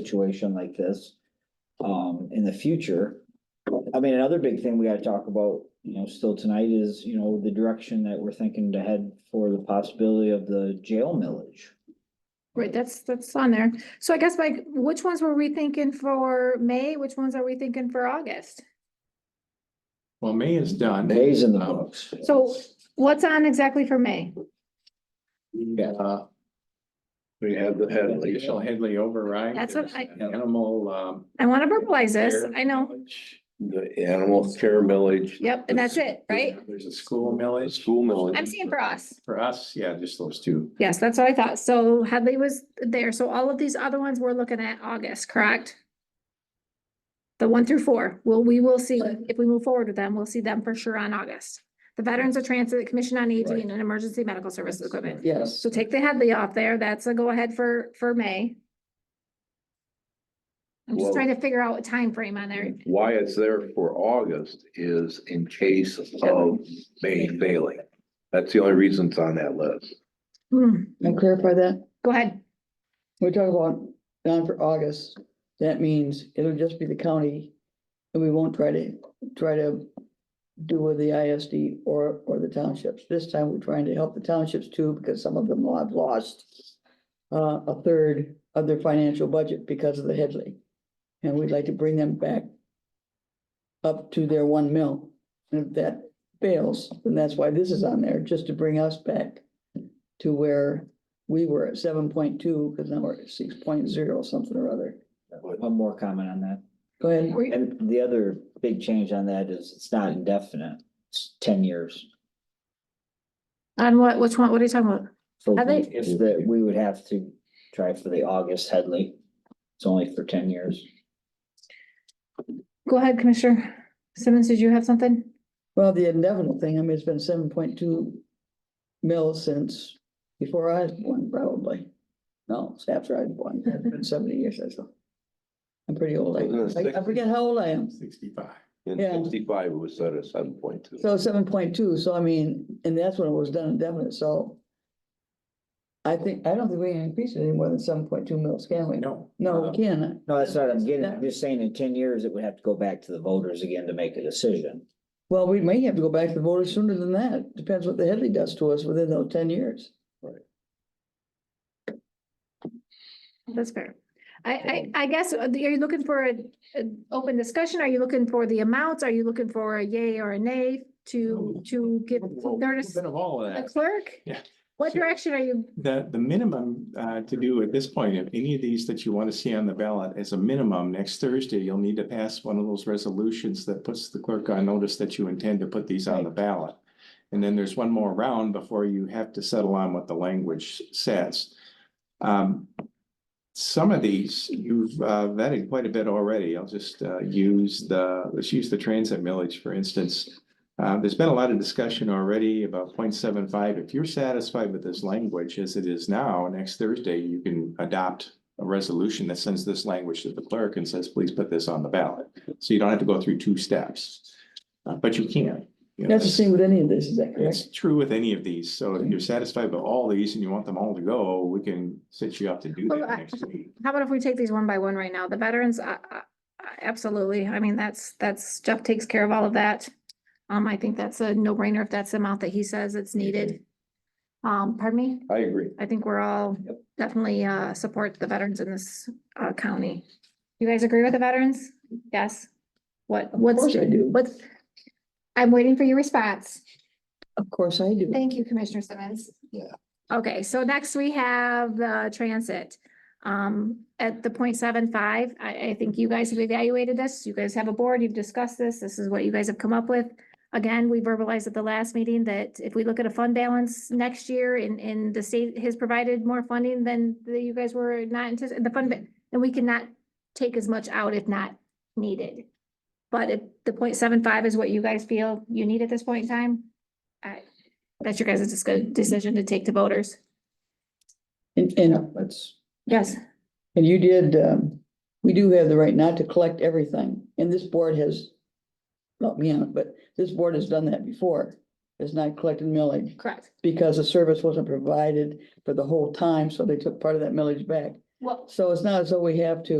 situation like this. Um, in the future. I mean, another big thing we gotta talk about, you know, still tonight is, you know, the direction that we're thinking to head for the possibility of the jail millage. Right, that's, that's on there. So I guess like, which ones were we thinking for May? Which ones are we thinking for August? Well, May is done. Days in the Um, books. So what's on exactly for May? Yeah. Uh, We have the Headley. Additional Headley override. That's what There's I- an Animal, um. I want to verbalize this. care I know. millage. The animal care millage. Yep, and that's it, right? There's a school The millage. school millage. I'm seeing for us. For us, yeah, just those two. Yes, that's what I thought. So Headley was there. So all of these other ones we're looking at August, correct? The one through four. Well, we will see if we move forward with them. We'll see them for sure on August. The Veterans of Transit, Commission on Aging and Emergency Medical Services Equipment. Yes. So take the Headley off there. That's a go ahead for, for May. I'm just Whoa. trying to figure out a time frame on there. Why it's there for August is in case of May failing. That's the only reason it's on that list. Mm. Hmm, Can I clarify that? Go ahead. We're talking about down for August. That means it'll just be the county. And we won't try to, try to do with the ISD or, or the townships. This time we're trying to help the townships too, because some of them will have lost uh, a third of their financial budget because of the Headley. And we'd like to bring them back up to their one mil. And if that fails, then that's why this is on there, just to bring us back to where we were at seven point two, because now we're at six point zero, something or other. One more comment on that. Go ahead. Were you- And the other big change on that is it's not indefinite. It's ten years. On what, which one, what are you talking about? So Are they- is that we would have to try for the August Headley. It's only for ten years. Go ahead, Commissioner Simmons, did you have something? Well, the indefinite thing, I mean, it's been seven point two mil since before I was born, probably. No, it's after I was born, it's been seventy years or so. I'm pretty old, I- I, I forget how old I am. Sixty-five. In Yeah. sixty-five, it was set at seven point two. So seven point two, so I mean, and that's when it was done indefinite, so. I think, I don't think we can increase it any more than seven point two mils, can we? No. No, Uh, we can. No, that's what I'm getting. I'm just saying in ten years, it would have to go back to the voters again to make a decision. Well, we may have to go back to the voters sooner than that. Depends what the Headley does to us within those ten years. Mm. That's fair. I, I, I guess, uh, are you looking for an open discussion? Are you looking for the amounts? Are you looking for a yay or a nay to, to give Well, notice Bit the of all of that. clerk? Yeah. What direction are you, The, the minimum, uh, to do at this point, if any of these that you want to see on the ballot, as a minimum, next Thursday, you'll need to pass one of those resolutions that puts the clerk on notice that you intend to put these on the ballot. And then there's one more round before you have to settle on what the language says. Um, some of these, you've uh, vetted quite a bit already. I'll just, uh, use the, let's use the transit millage, for instance. Uh, there's been a lot of discussion already about 0.75. If you're satisfied with this language as it is now, next Thursday, you can adopt a resolution that sends this language to the clerk and says, please put this on the ballot. So you don't have to go through two steps. Uh, But you can. you know, That's the same with any of this, is that correct? It's true with any of these. So if Mm-hmm. you're satisfied with all these and you want them all to go, we can set you up to do Well, that I- next week. how about if we take these one by one right now? The veterans, uh, uh, absolutely. I mean, that's, that's, Jeff takes care of all of that. Um, I think that's a no brainer if that's the amount that he says it's needed. Um, pardon me? I agree. I think we're all definitely uh support the veterans in this uh county. You guys agree with the veterans? Yes? What, Of what's, course I do. what's? I'm waiting for your response. Of course I do. Thank you, Commissioner Simmons. Yeah. Okay, so next we have the transit. Um, at the 0.75, I, I think you guys have evaluated this. You guys have a board, you've discussed this. This is what you guys have come up with. Again, we verbalized at the last meeting that if we look at a fund balance next year and, and the state has provided more funding than the, you guys were not anticipating, the fund, ba- then we cannot take as much out if not needed. But if the 0.75 is what you guys feel you need at this point in time, I, that's your guys' discu- decision to take to voters. And, and, That's, Yes. and you did, um, we do have the right not to collect everything, and this board has, not me on it, but this board has done that before. It's not collected millage Correct. because the service wasn't provided for the whole time, so they took part of that millage back. Well, So it's not as though we have to